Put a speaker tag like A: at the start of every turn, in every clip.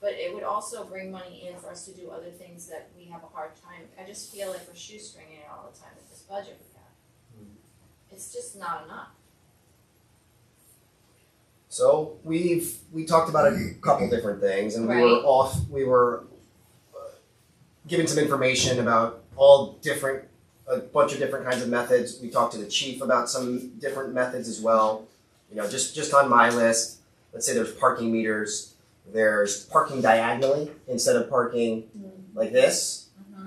A: but it would also bring money in for us to do other things that we have a hard time, I just feel like we're shoestringing it all the time with this budget we have.
B: Hmm.
A: It's just not enough.
B: So we've we talked about a couple different things, and we were
A: Right.
B: off. We were uh, given some information about all different, a bunch of different kinds of methods. We talked to the chief about some different methods as well. You know, just just on my list, let's say there's parking meters. There's parking diagonally instead of parking like this.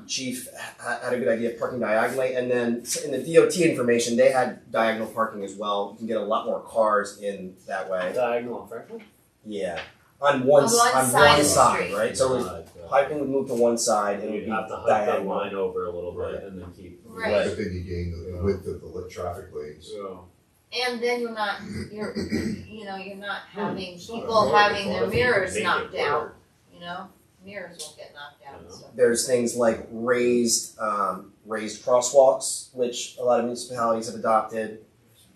B: Chief ha- had a good idea of parking diagonally, and then s- in the DOT information, they had diagonal parking as well. You can get a lot more cars in that way.
C: Diagonal on Franklin?
B: Yeah, on one,
A: On
B: s-
A: one
B: on
A: side of
B: one
A: the
B: side,
A: street.
B: right? So if
C: Uh,
B: piping would move to one side, it would
C: You'd
B: be
C: have to hike that
B: diagonal.
C: line over a little
B: Right.
C: bit and then keep.
A: Right.
D: But then you gain the, uh, the width of the li- traffic lanes.
C: So,
A: And then you're not, you're, you know, you're not having
D: Hmm. It's not
A: people
D: a
A: having
D: hard
A: their
D: thought.
A: mirrors
C: uh, Make it
A: knocked out,
C: work.
A: you know? Mirrors won't get knocked out and stuff.
B: There's things like raised, um, raised crosswalks, which a lot of municipalities have adopted.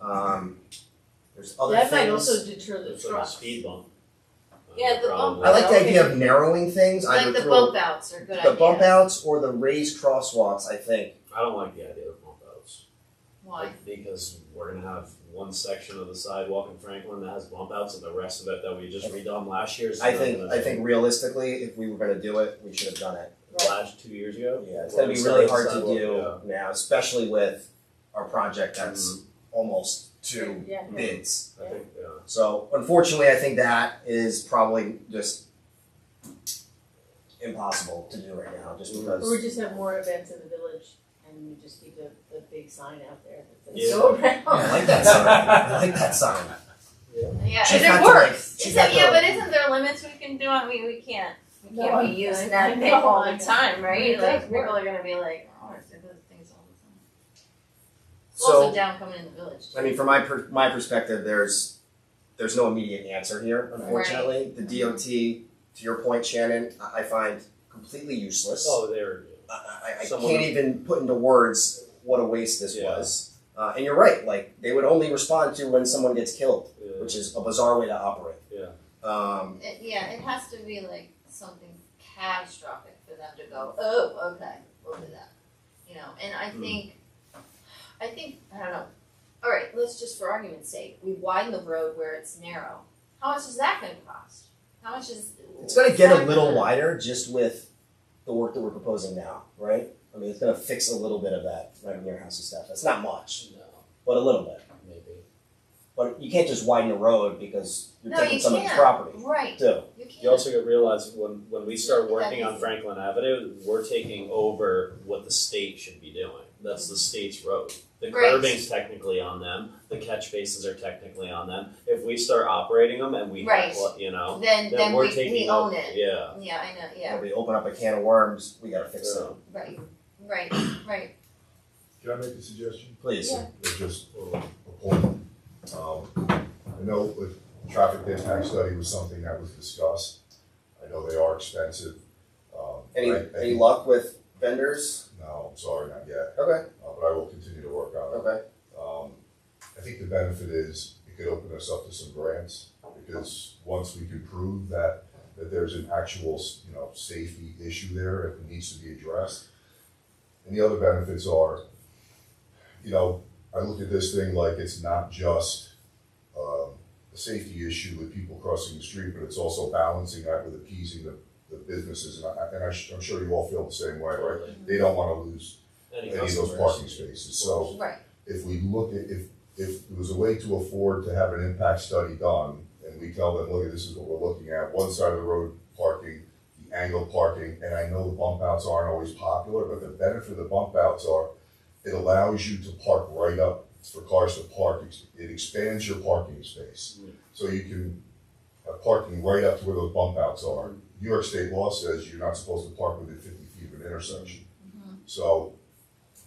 B: Um, there's other
E: That might also
B: things.
E: deter the
C: It's like a
E: trucks.
C: speed bump.
A: Yeah, the bump.
C: Probably.
B: I like the idea of narrowing things. I
A: Like
B: would
A: the
B: throw
A: bump outs are a good
B: the bump
A: idea.
B: outs or the raised crosswalks. I think
C: I don't like the idea of bump outs.
A: Why?
C: Like, Because we're gonna have one section of the sidewalk in Franklin that has bump outs and the rest of it that we just redone last year is.
B: I
C: not
B: think
C: gonna
B: I
C: be-
B: think realistically, if we were going to do it, we should have done it.
C: Last two years ago.
B: Yeah, it's gonna be really hard to do now, especially with our project that's almost two
E: Yeah.
B: bids.
C: Yeah, I think, yeah.
B: So unfortunately, I think that is probably just impossible to do right now, just
E: Or we
B: because.
E: just have more events in the village and we just keep the, the big sign out there that says
C: Yeah.
E: go around.
B: Oh, I like that sign, I like that sign.
A: Yeah,
B: She's
A: and
B: got
A: it
B: to, like-
A: works.
B: she's
A: Is
B: got
A: it, yeah,
B: to-
A: but isn't there limits we can do on, we, we can't, we
E: No,
A: can't be
E: I-
A: using
E: I
A: that thing
E: know,
A: all
E: I
A: the
E: know.
A: time, right?
E: It
A: Like,
E: does
A: people
E: work.
A: are gonna be like, oh, I do those things all the time. It's also
B: So,
A: down coming in the village.
B: I mean, from my per- my perspective, there's there's no immediate answer here, unfortunately. The DOT, to your point, Shannon, I, I find completely useless.
C: Oh, there,
B: I, I- I
C: Someone-
B: can't even put into words what a waste this
C: Yeah.
B: was. Uh, and you're right, like they would only respond to when someone gets killed,
C: yeah.
B: which is a bizarre way to operate.
C: Yeah.
B: Um,
A: It, yeah, it has to be like something catastrophic for them to go, oh, okay, we'll do that. You know, and I
C: Hmm.
A: think, I think, I don't know. All right, let's just for argument's sake, we widen the road where it's narrow. How much is that going to cost? How much is?
B: it's going to get a
A: that
B: little
A: gonna-
B: wider just with the work that we're proposing now, right? I mean, it's going to fix a little bit of that right near house and stuff. That's not much,
C: No,
B: but a little bit.
C: maybe.
B: But you can't just widen the road because you're
A: No,
B: taking
A: you
B: someone's
A: can't.
B: property
A: Right.
B: too.
A: You can't.
C: You also gotta realize when, when we start
A: That
C: working on
A: is-
C: Franklin Avenue, we're taking over what the state should be doing. That's the state's road. The
A: Right.
C: curbing's technically on them, the catch bases are technically on them. If we start operating them and we,
A: Right.
C: you know,
A: then
C: then
A: then
C: we're
A: we,
C: taking
A: we
C: up-
A: own it.
C: Yeah,
A: Yeah, I know. Yeah,
B: If we open up a can of worms, we got to fix
C: Yeah.
B: them.
A: right, right, right.
D: Can I make a suggestion?
B: Please.
A: Yeah.
D: It's just a a point. Um, I know with traffic impact study was something that was discussed. I know they are expensive. Um,
B: Any,
D: I- I
B: any
D: think-
B: luck with vendors?
D: No, I'm sorry, not yet,
B: Okay.
D: uh, but I will continue to work on it.
B: Okay.
D: Um, I think the benefit is it could open us up to some grants because once we can prove that, that there's an actual, you know, safety issue there and it needs to be addressed. And the other benefits are, you know, I look at this thing like it's not just, um, a safety issue with people crossing the street, but it's also balancing that with appeasing the, the businesses. And I, and I sh- I'm sure you all feel the same way, right?
C: totally.
D: They don't wanna lose
C: Any
D: any of those
C: customers.
D: parking spaces, so
A: Right.
D: if we look at, if, if it was a way to afford to have an impact study done, and we tell them, look, this is what we're looking at, one side of the road parking, the angle parking, and I know the bump outs aren't always popular, but the benefit of the bump outs are, it allows you to park right up for cars to park, it expands your parking space.
C: Mm.
D: So you can have parking right up to where those bump outs are. New York state law says you're not supposed to park within fifty feet of an intersection. So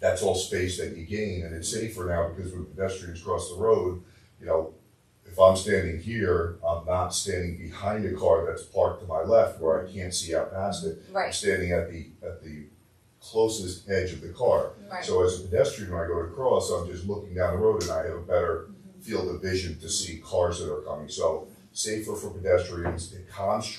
D: that's all space that you gain, and it's safer now because when pedestrians cross the road, you know, if I'm standing here, I'm not standing behind a car that's parked to my left where I can't see out past it. I'm
A: Right.
D: standing at the, at the closest edge of the car.
A: Right.
D: So as a pedestrian, when I go to cross, I'm just looking down the road and I have a better
A: Mm-hmm.
D: field of vision to see cars that are coming. So safer for pedestrians, it calms